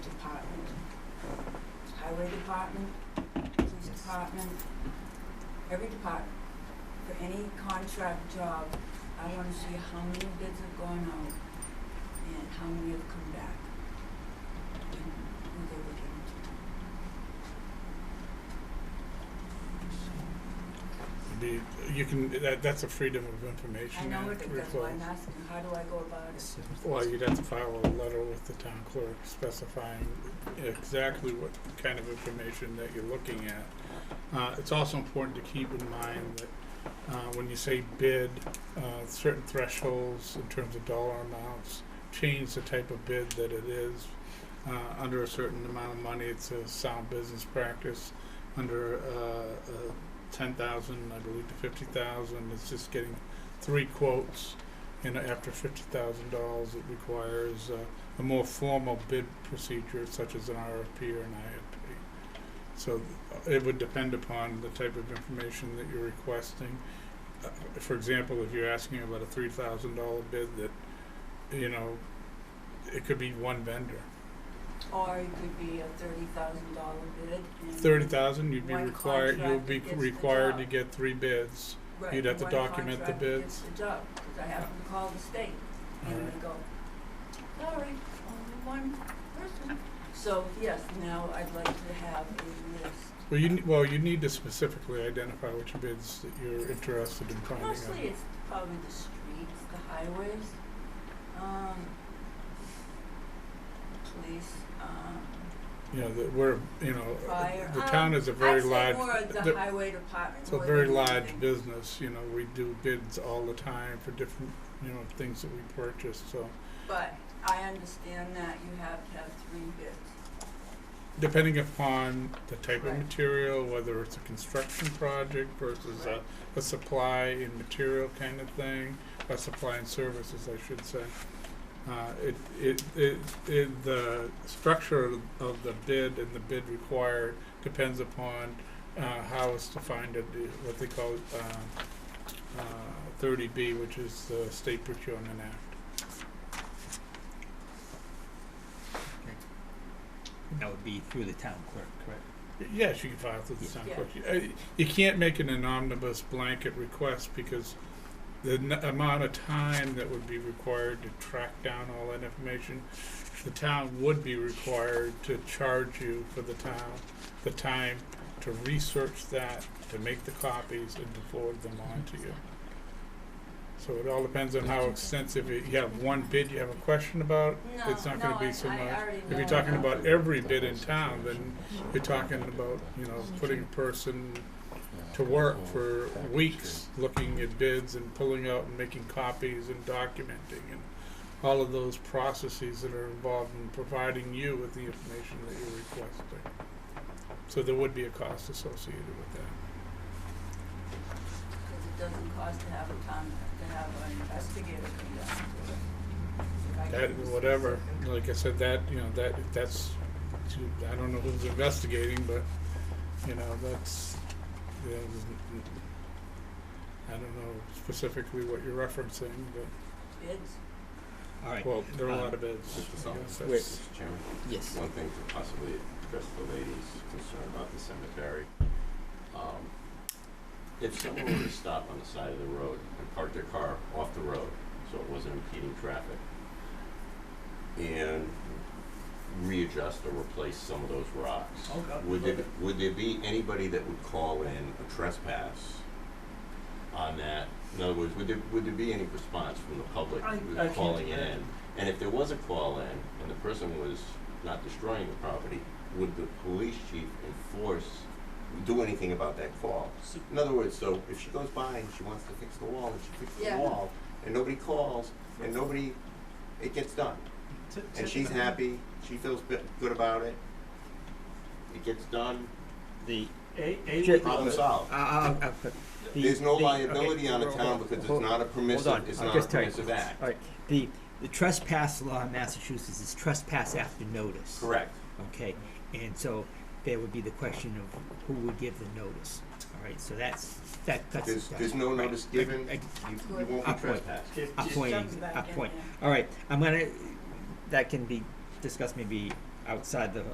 highway department, police department, every department, for any contract job, I wanna see how many bids have gone out and how many have come back. And who they were given to. Be, you can, that, that's a freedom of I information know Act it, that's why I'm request. asking, how do I go about it? Well, you'd have to file a letter with the town clerk specifying exactly what kind of information that you're looking at. Uh, it's also important to keep in mind that, uh, when you say bid, uh, certain thresholds in terms of dollar amounts change the type of bid that it is. Uh, under a certain amount of money, it's a sound business practice. Under, uh, uh, ten thousand, I believe to fifty thousand, it's just getting three quotes. And after fifty thousand dollars, it requires uh, a more formal bid procedure such as an RFP or an IFP. So th- it would depend upon the type of information that you're requesting. Uh, For example, if you're asking about a three thousand dollar bid that, you know, it could be one vendor. Or it could be a thirty thousand dollar bid and. Thirty thousand, you'd be Mm-hmm. One required, you'll contract be gets the required to job. get three bids. Right, you'd have to one document the contract gets bids. the job, 'cause I have to call the state. All And right. they go, sorry, only one person. So, yes, now I'd like to have a list. Well, you, ne- well, you need to specifically identify which bids that you're interested in finding out. Mostly it's probably the streets, the highways, um, police, um, you know, that we're, you know, fire. the Um, town is a very I'd large, say more the- the highway department. it's a more very than large anything. business, you know, we do bids all the time for different, you know, things that we purchase, so. But I understand that you have to have three bids. Depending upon the type of Right. material, whether it's a construction project versus a, Right. a supply and material kind of thing, a supply and services, I should say. Uh, it, it, it, it, the structure of the bid and the bid required depends upon, uh, how it's defined at the, what they call, uh, uh, thirty B, which is the State Procurement Act. That would be through the town clerk, correct? Yes, you can file through the Yeah. town Yeah. clerk. You- uh, You can't make it an omnibus blanket request because the n- amount of time that would be required to track down all that information, the town would be required to charge you for the town, the time to research that, to make the copies and to forward them on to you. So it all depends on how extensive, it- you have one bid you have a question about, it's No, no, not gonna I- be so much. I already If you're know talking that. about every bid in town, then you're talking about, you know, putting a person to work for weeks looking at bids and pulling out and making copies and documenting and all of those processes that are involved in providing you with the information that you're requesting. So there would be a cost associated with that. Because it doesn't cost to have a town, to have an investigator come down. If I That, could be whatever, specific. like I said, that, you know, that, that's, I don't know who's investigating, but, you know, that's, you know, there's n- n- I don't know specifically what you're referencing, but, Bids. All right. well, there are a lot Um, of bids. I Mr. guess Sullivan. that's- Mr. Chairman, Yes. one thing to possibly address the lady's concern about the cemetery. Um, If someone were to stop on the side of the road and park their car off the road, so it wasn't impeding traffic, and readjust or replace some of those rocks, Oh, God. would there, would there be anybody that would call in a trespass on that? In other words, would there, would there be any response from the public I- who's I can't calling in? imagine. And if there was a call in and the person was not destroying the property, would the police chief enforce, do anything about that call? In other words, so if she goes by and she wants to fix the wall and she fixes Yeah. the wall and nobody calls and nobody, it gets done. And she's happy, she feels bit- good about it, it gets done, The A, Sure. A, problem solved. Uh, uh, uh, the- There's no the- liability okay, on a hold- town because it's hold- not a Hold permissive, on, it's I'll not a just tell you. Uh, permissive act. All right, the, the trespass law in Massachusetts is trespass after notice. Correct. Okay, and so there would be the question of who would give the notice. All right, so that's, that, that's. There's, that's- there's no right. notice given, I- I- you, you won't be Upward. trespassed. just, A just point, jumps back a in point. there. All right, I'm gonna, that can be discussed maybe outside the